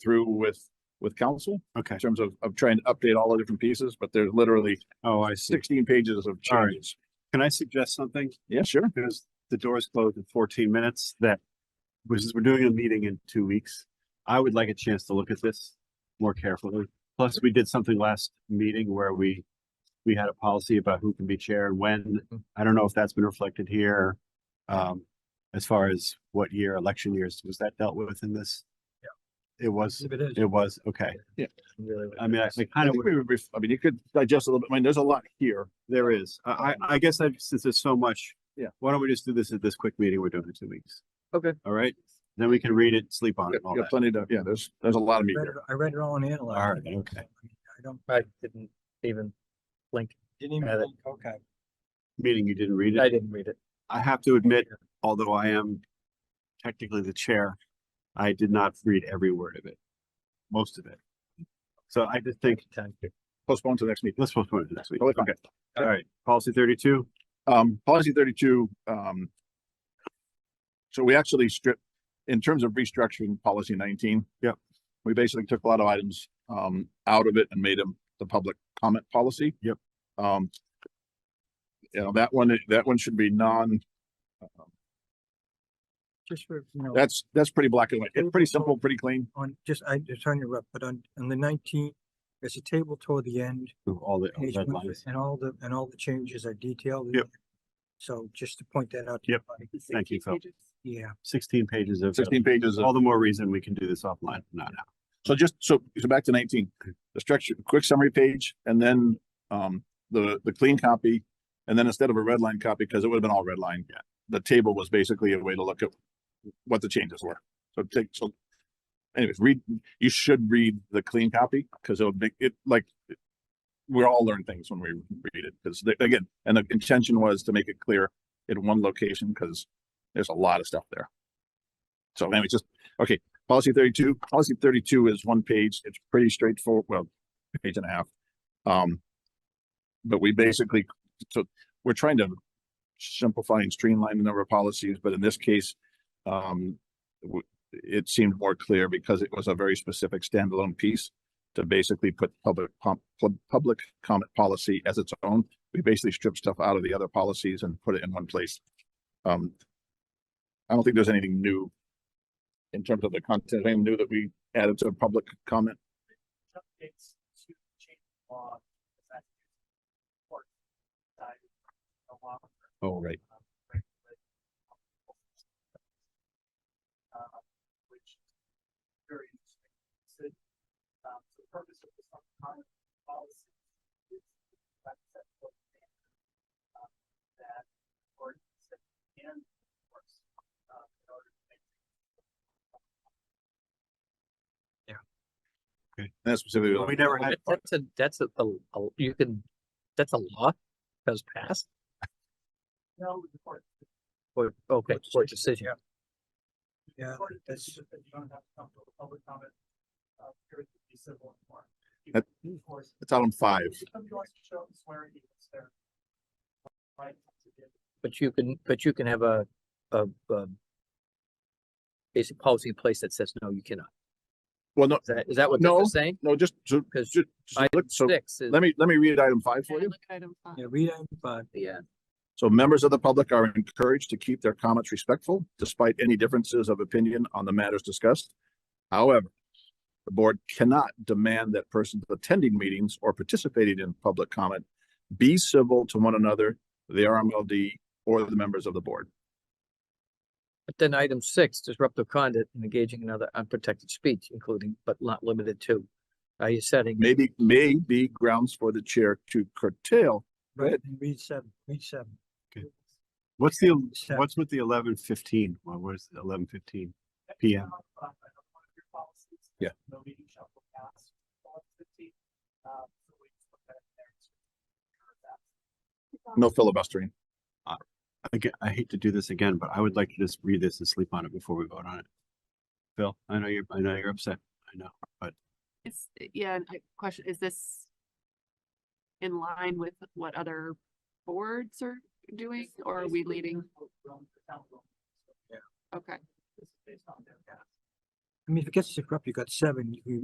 through with, with council Okay. in terms of, of trying to update all the different pieces, but there's literally Oh, I see. sixteen pages of All right. changes. Can I suggest something? Yeah, sure. Because the doors closed in fourteen minutes that, which is, we're doing a meeting in two weeks. I would like a chance to look at this more carefully. Plus, we did something last meeting where we, we had a policy about who can be chair and when. Mm-hmm. I don't know if that's been reflected here. Um, as far as what year, election years, was that dealt with in this? Yeah. It was, If it is. it was, okay. really what I it mean, I is. I I kind of. think we would be, I mean, you could digest a little bit. I mean, there's a lot here. There is. I, I, I guess I, since there's so much. Yeah. Why don't we just do this at this quick meeting we're doing in two weeks? Okay. All right, then we can read it, sleep on You it, and all got that. plenty to, yeah, there's, there's a lot of meat Read here. it- I read it all and All analyzed. right, it, okay. so, I mean, I don't, I didn't even blink. Didn't even blink, okay. Meaning you didn't read I it. didn't read it. I have to admit, although I am technically the chair, I did not read every word of it. Most of it. So I just think, Time to- Postpone to the next meeting. let's postpone it to next week. Totally fine. Okay, all right, policy thirty-two, Um, policy thirty-two, um. So we actually stripped, in terms of restructuring policy nineteen. Yep. We basically took a lot of items, um, out of it and made them the public comment policy. Yep. Um. You know, that one, that one should be non, Just for, you know, that's, that's pretty black and white. It's pretty simple, pretty clean. on, just, I, it's on your rep, but on, on the nineteenth, there's a table toward the end. Ooh, all the page Oh, red one, lines. And all the, and all the changes are detailed. in Yep. there. So just to point that out. to Yep. everybody. Thank you, Phil. Yeah, Sixteen pages of, Sixteen pages of all the more reason we can do this offline, not now. So just, so, so back to nineteen, the structure, quick summary page, and then, um, the, the clean copy. And then instead of a red line copy, because it would have been all red line. Yeah. The table was basically a way to look at what the changes were. So take, so anyways, read, you should read the clean copy, because it'll make it like we all learn things when we read it, because again, and the intention was to make it clear in one location, because there's a lot of stuff there. So anyway, just, okay, Policy thirty-two, policy thirty-two is one page. It's pretty straightforward, well, page and a half. Um. But we basically, so we're trying to simplify and streamline the number of policies, but in this case, um. w- It seemed more clear because it was a very specific standalone piece to basically put public pump, pub- public comment policy as its own. We basically stripped stuff out of the other policies and put it in one place. Um. I don't think there's anything new in terms of the content, anything new that we added to public comment? updates to change the law. if that's important, side of the law, Oh, right. um, regulate, uh, Which is very interesting. So, um, the purpose of this current policy is that set forth standards, um, that or that can enforce uh, in order to make That's specifically. We never had. That- That's a, that's a, a- a- you can, that's a law that was passed no report. or, okay, Court or decision, decision. yeah. yeah, Or that's- decision that you don't have to come to a public comment, uh, period, would be civil and more. You That- can enforce- It's out on five. If Somebody wants to show up and swear at you, it's their right to do. But you can, but you can have a, a, a basic policy in place that says, no, you cannot. Well, no, Is that, is that what this No. is saying? no, just, so, Because ju- just Item look- so six is, let me, let me read item five for you. yeah, read it, but yeah, So members of the public are encouraged to keep their comments respectful despite any differences of opinion on the matters discussed. However, the board cannot demand that persons attending meetings or participating in public comment be civil to one another, the RMLD, or the members of the board. but then item six, disruptive conduct and engaging in other unprotected speech, including but not limited to. Are you setting? Maybe, may be grounds for the chair to curtail Go ahead. and read seven, read seven. What's the, Seven. what's with the eleven fifteen? Well, where's the eleven fifteen? PM. One of your policies. Yeah. No meeting shall go past twelve fifteen. Uh, so we just look at it there. no filibustering. Again, I hate to do this again, but I would like to just read this and sleep on it before we vote on it. Phil, I know you're, I know you're upset. I know. Is, eh, yeah, and I question, is this in line with what other boards are doing or are we leading? Basically, we're going to the town vote. Okay. This is based on their past. I I mean, if it gets disrupted, you got seven, you can